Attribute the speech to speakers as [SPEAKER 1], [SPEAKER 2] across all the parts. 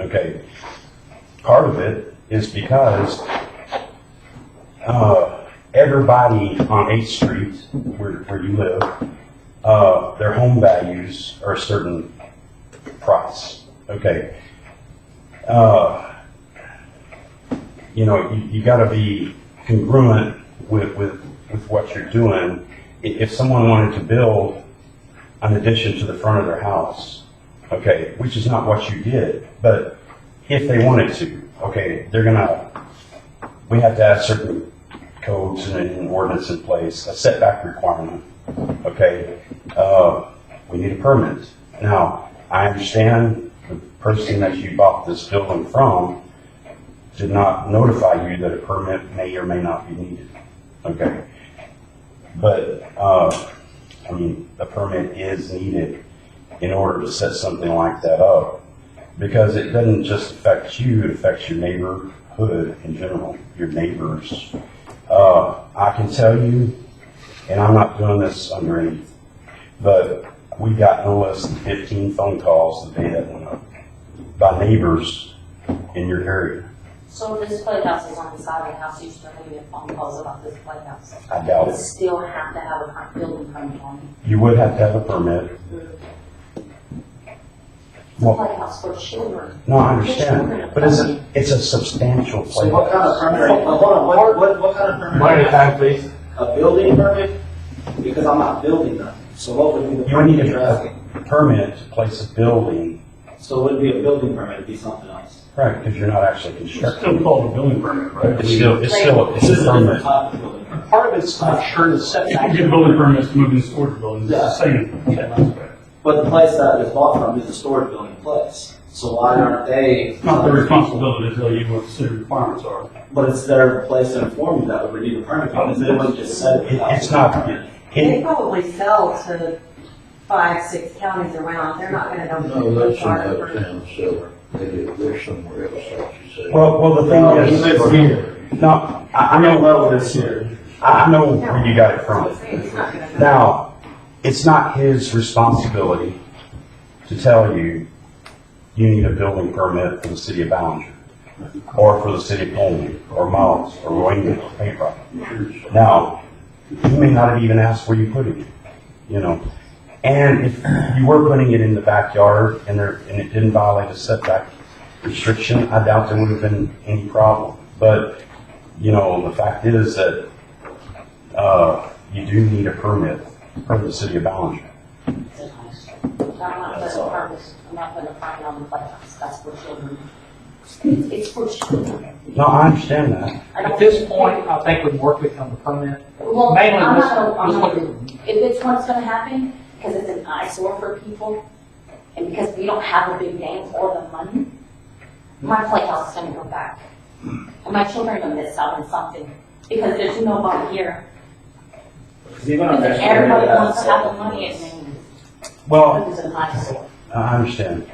[SPEAKER 1] Okay, part of it is because, uh, everybody on Eighth Street, where, where you live, uh, their home values are a certain price, okay? Uh, you know, you, you gotta be congruent with, with, with what you're doing. I- If someone wanted to build an addition to the front of their house, okay, which is not what you did, but if they wanted to, okay, they're gonna, we have to have certain codes and an ordinance in place, a setback requirement, okay? Uh, we need a permit. Now, I understand the person that you bought this building from did not notify you that a permit may or may not be needed, okay? But, uh, I mean, a permit is needed in order to set something like that up. Because it doesn't just affect you, it affects your neighborhood in general, your neighbors. Uh, I can tell you, and I'm not doing this under any, but we got no less than fifteen phone calls the day that went up by neighbors in your area.
[SPEAKER 2] So this playhouse is on the side of the house, you still gonna get phone calls about this playhouse.
[SPEAKER 1] I doubt
[SPEAKER 3] Oh.
[SPEAKER 2] You
[SPEAKER 1] it.
[SPEAKER 2] still have to have a front building permit on
[SPEAKER 1] You would have to have a permit.
[SPEAKER 2] it.
[SPEAKER 1] Well,
[SPEAKER 2] Playhouse for children.
[SPEAKER 1] no, I understand, but it's, a- it's a substantial
[SPEAKER 4] So what kind of
[SPEAKER 1] playhouse.
[SPEAKER 4] permit, hold on, what, what, what kind of permit?
[SPEAKER 5] One at a time, please.
[SPEAKER 4] A building permit? Because I'm not building nothing, so what would be the
[SPEAKER 1] You would need
[SPEAKER 4] permit you're
[SPEAKER 1] a
[SPEAKER 4] asking?
[SPEAKER 1] permit to place a building
[SPEAKER 4] So it wouldn't be a building permit, it'd be something else.
[SPEAKER 1] Right, because you're not actually constructing.
[SPEAKER 5] Still called a building permit, right?
[SPEAKER 1] It's still, it's still,
[SPEAKER 4] This
[SPEAKER 1] it's
[SPEAKER 4] is
[SPEAKER 1] a
[SPEAKER 4] a
[SPEAKER 1] permit.
[SPEAKER 4] different type of building permit.
[SPEAKER 3] Part of it's not sure the setback.
[SPEAKER 5] You get building permits to move in storage buildings, it's the same. It's
[SPEAKER 4] But the place that it was bought from is a storage building place, so why aren't they?
[SPEAKER 5] not their responsibility to tell you what the city requirements are.
[SPEAKER 4] But it's their place to inform you that we would need a permit, because they wouldn't just said it.
[SPEAKER 1] It- It's not,
[SPEAKER 6] They
[SPEAKER 1] it,
[SPEAKER 6] probably sell to five, six counties around, they're not gonna know.
[SPEAKER 7] No, that's in
[SPEAKER 6] Florida
[SPEAKER 7] another town, so they do, they're somewhere else, like you said.
[SPEAKER 1] well, well, the
[SPEAKER 4] No,
[SPEAKER 1] thing is, no, I, I know,
[SPEAKER 4] level this here.
[SPEAKER 1] I I know where you got it
[SPEAKER 6] for-
[SPEAKER 1] from.
[SPEAKER 6] It's not gonna know.
[SPEAKER 1] Now, it's not his responsibility to tell you, you need a building permit for the city of Ballinger, or for the city of Colby, or Mullins, or Wayne, or Paint Rock. Now, you may not have even asked where you put it, you know? And if you were putting it in the backyard and there, and it didn't violate a setback restriction, I doubt there would have been any problem. But, you know, the fact is that, uh, you do need a permit from the city of Ballinger.
[SPEAKER 2] I'm not
[SPEAKER 4] That's
[SPEAKER 2] putting a
[SPEAKER 4] all.
[SPEAKER 2] permit, I'm not putting a permit on the playhouse, that's for children. It's it's for children.
[SPEAKER 1] No, I understand that.
[SPEAKER 2] I don't-
[SPEAKER 3] At this point, I think we'd work with them to come in.
[SPEAKER 2] Well,
[SPEAKER 3] Mainly,
[SPEAKER 2] I'm
[SPEAKER 3] let's,
[SPEAKER 2] not gonna, I'm
[SPEAKER 3] let's
[SPEAKER 2] not
[SPEAKER 3] look
[SPEAKER 2] gonna
[SPEAKER 3] at,
[SPEAKER 2] if it's what's gonna happen, because it's an eyesore for people, and because we don't have a big name or the money, my playhouse is gonna go back. And my children are gonna miss out on something, because there's nobody here.
[SPEAKER 4] Because even on
[SPEAKER 2] Because
[SPEAKER 4] that.
[SPEAKER 2] everybody wants to have the money and then
[SPEAKER 1] Well,
[SPEAKER 2] it's an eyesore.
[SPEAKER 1] I understand.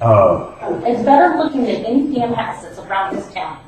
[SPEAKER 1] Uh,
[SPEAKER 2] It's better looking than any damn house that's around this town.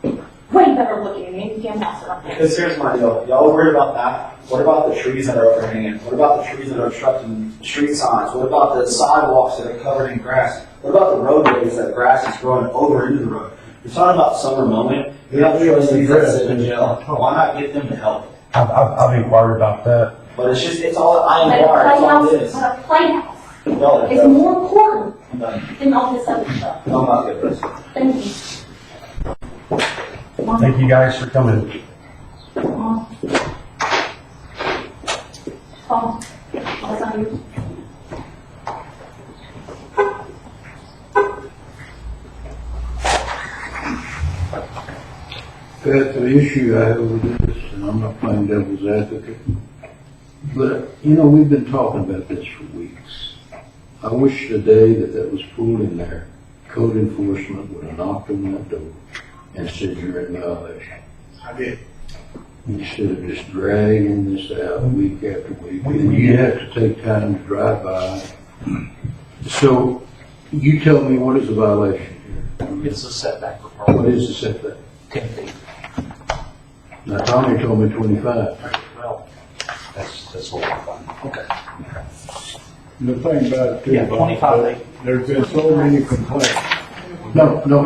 [SPEAKER 2] Way better looking than any damn house around here.
[SPEAKER 4] Because here's my deal, y'all worried about that, what about the trees that are overhanging, what about the trees that are obstructing street signs, what about the sidewalks that are covered in grass? What about the roadways that grass is growing over into the road? You're talking about summer moment, we have trustees that sit in jail, why not get them to help?
[SPEAKER 1] I've, I've, I've inquired about that.
[SPEAKER 4] But it's just, it's all I
[SPEAKER 2] But
[SPEAKER 4] am
[SPEAKER 2] a
[SPEAKER 4] wired, it's all
[SPEAKER 2] playhouse, but
[SPEAKER 4] it is.
[SPEAKER 2] a playhouse
[SPEAKER 4] Y'all are
[SPEAKER 2] is
[SPEAKER 4] dumb.
[SPEAKER 2] more important
[SPEAKER 4] I'm done.
[SPEAKER 2] than all this other stuff.
[SPEAKER 4] I'm not good at this.
[SPEAKER 2] Thank you.
[SPEAKER 1] Thank you guys for coming.
[SPEAKER 2] Tom, what's on you?
[SPEAKER 7] That's the issue I have with this, and I'm not playing devil's advocate. But, you know, we've been talking about this for weeks. I wish today that that was pulled in there. Code enforcement would have knocked on that door and said, you're in violation.
[SPEAKER 8] I did.
[SPEAKER 7] Instead of just dragging this out week after week, and you have to take time to drive by. So, you tell me what is a violation here?
[SPEAKER 3] it's a setback for
[SPEAKER 7] What is the setback?
[SPEAKER 3] ten feet.
[SPEAKER 7] Now, Tommy told me twenty-five.
[SPEAKER 3] Well,
[SPEAKER 1] That's, that's what I find.
[SPEAKER 8] The thing about it too.
[SPEAKER 3] Yeah,
[SPEAKER 8] Bob,
[SPEAKER 3] 25.
[SPEAKER 8] There's been so many complaints
[SPEAKER 7] No, no,